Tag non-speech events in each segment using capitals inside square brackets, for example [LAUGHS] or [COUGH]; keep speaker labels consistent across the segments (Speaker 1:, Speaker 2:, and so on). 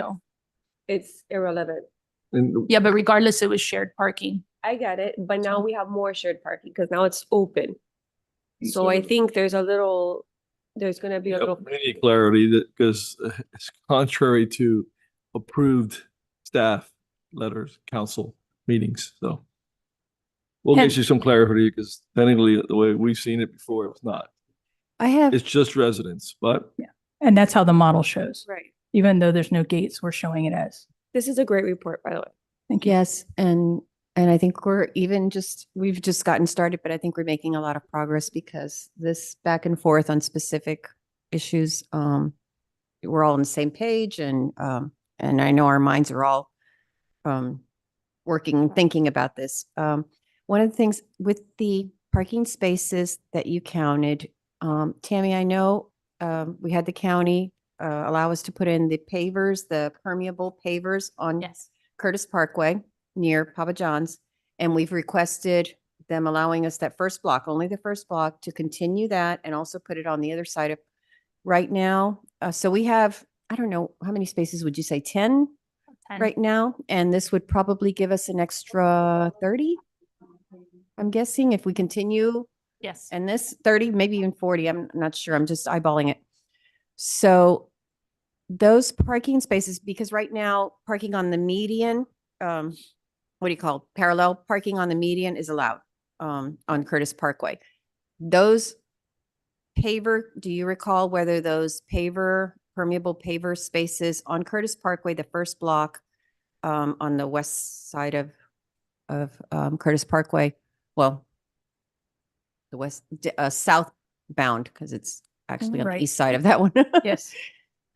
Speaker 1: No.
Speaker 2: It's irrelevant.
Speaker 3: And
Speaker 1: Yeah, but regardless, it was shared parking.
Speaker 2: I get it, but now we have more shared parking because now it's open.
Speaker 3: Mm,
Speaker 2: So I
Speaker 1: So-
Speaker 2: think there's a little, there's gonna be a little,
Speaker 3: we need clarity that, because [LAUGHS] it's contrary to approved staff letters, council meetings, so. We'll
Speaker 1: And-
Speaker 3: get you some clarity, because technically, the way we've seen it before, it was not.
Speaker 4: I have,
Speaker 3: It's just residents, but
Speaker 5: And that's how the model shows.
Speaker 2: right.
Speaker 5: Even though there's no gates, we're showing it as.
Speaker 2: This is a great report, by the way.
Speaker 5: Thank you.
Speaker 4: yes, and, and I think we're even just, we've just gotten started, but I think we're making a lot of progress because this back and forth on specific issues, um, we're all on the same page and, um, and I know our minds are all, um, working, thinking about this. Um, one of the things with the parking spaces that you counted, um, Tammy, I know, um, we had the county, uh, allow us to put in the pavers, the permeable pavers on
Speaker 1: Yes.
Speaker 4: Curtis Parkway near Papa John's. And we've requested them allowing us that first block, only the first block, to continue that and also put it on the other side of, right now. Uh, so we have, I don't know, how many spaces would you say? Ten right now? And this would probably give us an extra thirty? I'm guessing if we continue
Speaker 1: Yes.
Speaker 4: and this thirty, maybe even forty, I'm not sure, I'm just eyeballing it. So those parking spaces, because right now parking on the median, um, what do you call, it? parallel parking on the median is allowed, um, on Curtis Parkway. Those paver, do you recall whether those paver, permeable paver spaces on Curtis Parkway, the first block, um, on the west side of, of, um, Curtis Parkway, well, the west, d- uh, southbound, because it's actually on the
Speaker 5: Right.
Speaker 4: east side of that one.
Speaker 5: Yes,
Speaker 4: [LAUGHS]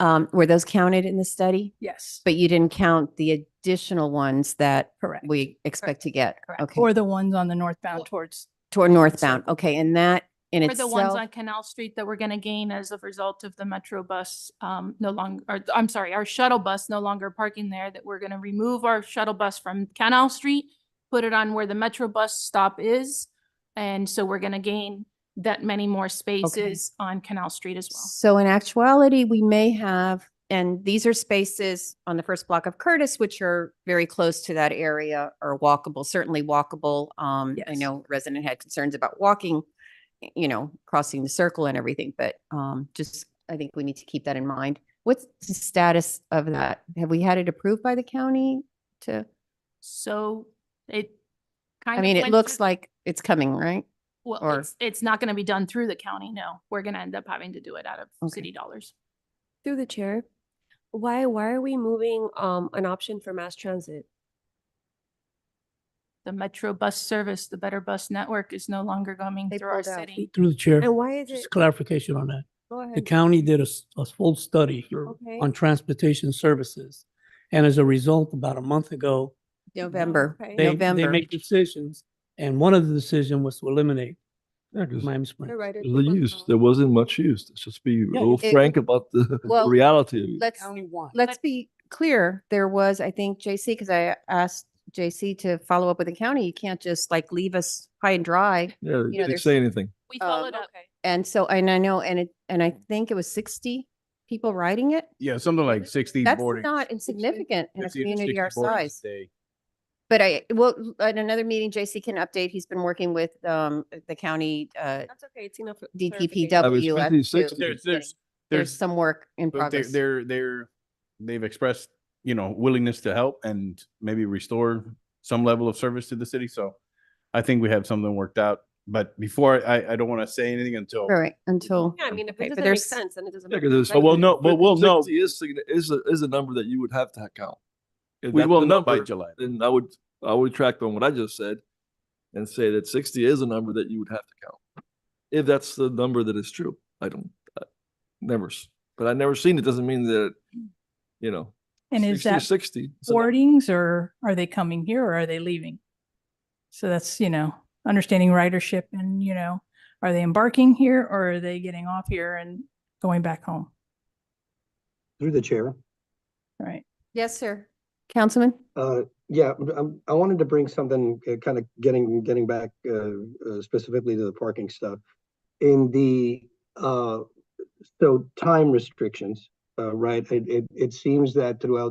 Speaker 4: Um, were those counted in the study?
Speaker 5: yes,
Speaker 4: But you didn't count the additional ones that
Speaker 5: correct.
Speaker 4: we expect to get?
Speaker 1: Correct.
Speaker 4: Okay,
Speaker 5: Or the ones on the northbound towards,
Speaker 4: toward northbound, okay, and that in
Speaker 1: For the ones
Speaker 4: itself,
Speaker 1: on Canal Street that we're going to gain as a result of the Metro bus, um, no longer, or I'm sorry, our shuttle bus no longer parking there, that we're going to remove our shuttle bus from Canal Street, put it on where the Metro bus stop is. And so we're going to gain that many more spaces on Canal Street as well.
Speaker 4: so in actuality, we may have, and these are spaces on the first block of Curtis, which are very close to that area or walkable, certainly walkable. Um, I
Speaker 5: Yes.
Speaker 4: know resident had concerns about walking, y- you know, crossing the circle and everything, but, um, just, I think we need to keep that in mind. What's the status of that? Have we had it approved by the county to?
Speaker 1: So it kind
Speaker 4: I
Speaker 1: of.
Speaker 4: mean, it
Speaker 1: went
Speaker 4: looks
Speaker 1: through-
Speaker 4: like it's coming, right?
Speaker 1: Well,
Speaker 4: or-
Speaker 1: it's, it's not going to be done through the county. No, we're going to end up having to do it out of
Speaker 4: Okay.
Speaker 1: city dollars.
Speaker 2: Through the chair, why, why are we moving, um, an option for mass transit?
Speaker 1: The Metro bus service, the Better Bus Network is no longer coming
Speaker 4: They
Speaker 1: through our
Speaker 4: pulled out.
Speaker 1: city.
Speaker 6: Through the chair,
Speaker 2: And why is it?
Speaker 6: just clarification on that.
Speaker 2: Go ahead.
Speaker 6: The county did a, s- a full study
Speaker 2: Okay.
Speaker 6: on transportation services. And as a result, about a month ago,
Speaker 4: November,
Speaker 2: okay.
Speaker 6: they, they
Speaker 4: November.
Speaker 6: make decisions. And one of the decision was to eliminate
Speaker 3: yeah, 'cause
Speaker 6: Miami
Speaker 2: The
Speaker 6: Springs.
Speaker 2: writer
Speaker 3: the
Speaker 2: took one
Speaker 3: use,
Speaker 2: out.
Speaker 3: there wasn't much use. Let's just be
Speaker 6: Yeah.
Speaker 3: real [LAUGHS]
Speaker 4: It-
Speaker 3: frank about the
Speaker 4: Well,
Speaker 3: reality of it.
Speaker 4: Let's,
Speaker 6: Countywide.
Speaker 4: let's be clear. There was, I think, JC, because I asked JC to follow up with the county. You can't just like leave us high and dry.
Speaker 3: Yeah, they didn't
Speaker 4: there's-
Speaker 3: say anything.
Speaker 1: We
Speaker 4: Um,
Speaker 1: followed up.
Speaker 4: And so, and I know, and it, and I think it was sixty people riding it.
Speaker 7: Yeah, something like sixty
Speaker 4: That's
Speaker 7: boarding.
Speaker 4: not insignificant in a
Speaker 7: 50 to
Speaker 4: community
Speaker 7: 60
Speaker 4: our
Speaker 7: boardings
Speaker 4: size.
Speaker 7: a day.
Speaker 4: But I, well, at another meeting, JC can update. He's been working with, um, the county, uh,
Speaker 2: That's okay, it's enough. for clarification.
Speaker 3: I was
Speaker 4: DPW. as
Speaker 3: 50,
Speaker 4: to-
Speaker 3: 60.
Speaker 7: There's, there's,
Speaker 4: There's
Speaker 7: there's,
Speaker 4: some work in
Speaker 7: but they're,
Speaker 4: progress.
Speaker 7: they're, they're, they've expressed, you know, willingness to help and maybe restore some level of service to the city. So I think we have something worked out, but before I, I don't want to say anything until.
Speaker 4: All right, until.
Speaker 2: Yeah, I mean, if
Speaker 4: okay,
Speaker 2: it
Speaker 4: but
Speaker 2: doesn't make
Speaker 4: there's-
Speaker 2: sense, then it doesn't.
Speaker 3: Uh, Yeah,
Speaker 2: make
Speaker 3: 'cause
Speaker 2: sense.
Speaker 3: there's-
Speaker 2: I
Speaker 7: Well,
Speaker 2: get
Speaker 7: no,
Speaker 2: it.
Speaker 7: but we'll know.
Speaker 3: 50, 60 Is, signi- is, a- is a number that you would have to count. If
Speaker 7: We
Speaker 3: that's
Speaker 7: will
Speaker 3: the
Speaker 7: know by
Speaker 3: number,
Speaker 7: July.
Speaker 3: Then I would, I would track on what I just said and say that sixty is a number that you would have to count. If that's the number that is true, I don't, I never, s- but I never seen it, doesn't mean that, you know.
Speaker 5: and is
Speaker 3: 60
Speaker 5: that
Speaker 3: Sixty. So
Speaker 5: boardings or are they coming here or are they leaving? So that's, you know, understanding ridership and, you know, are they embarking here or are they getting off here and going back home?
Speaker 8: Through the chair.
Speaker 5: Right.
Speaker 4: Yes, sir. Councilman?
Speaker 8: Uh, yeah, um, I wanted to bring something, kind of getting, getting back, uh, uh, specifically to the parking stuff. In the, uh, so time restrictions, uh, right? It, it, it seems that throughout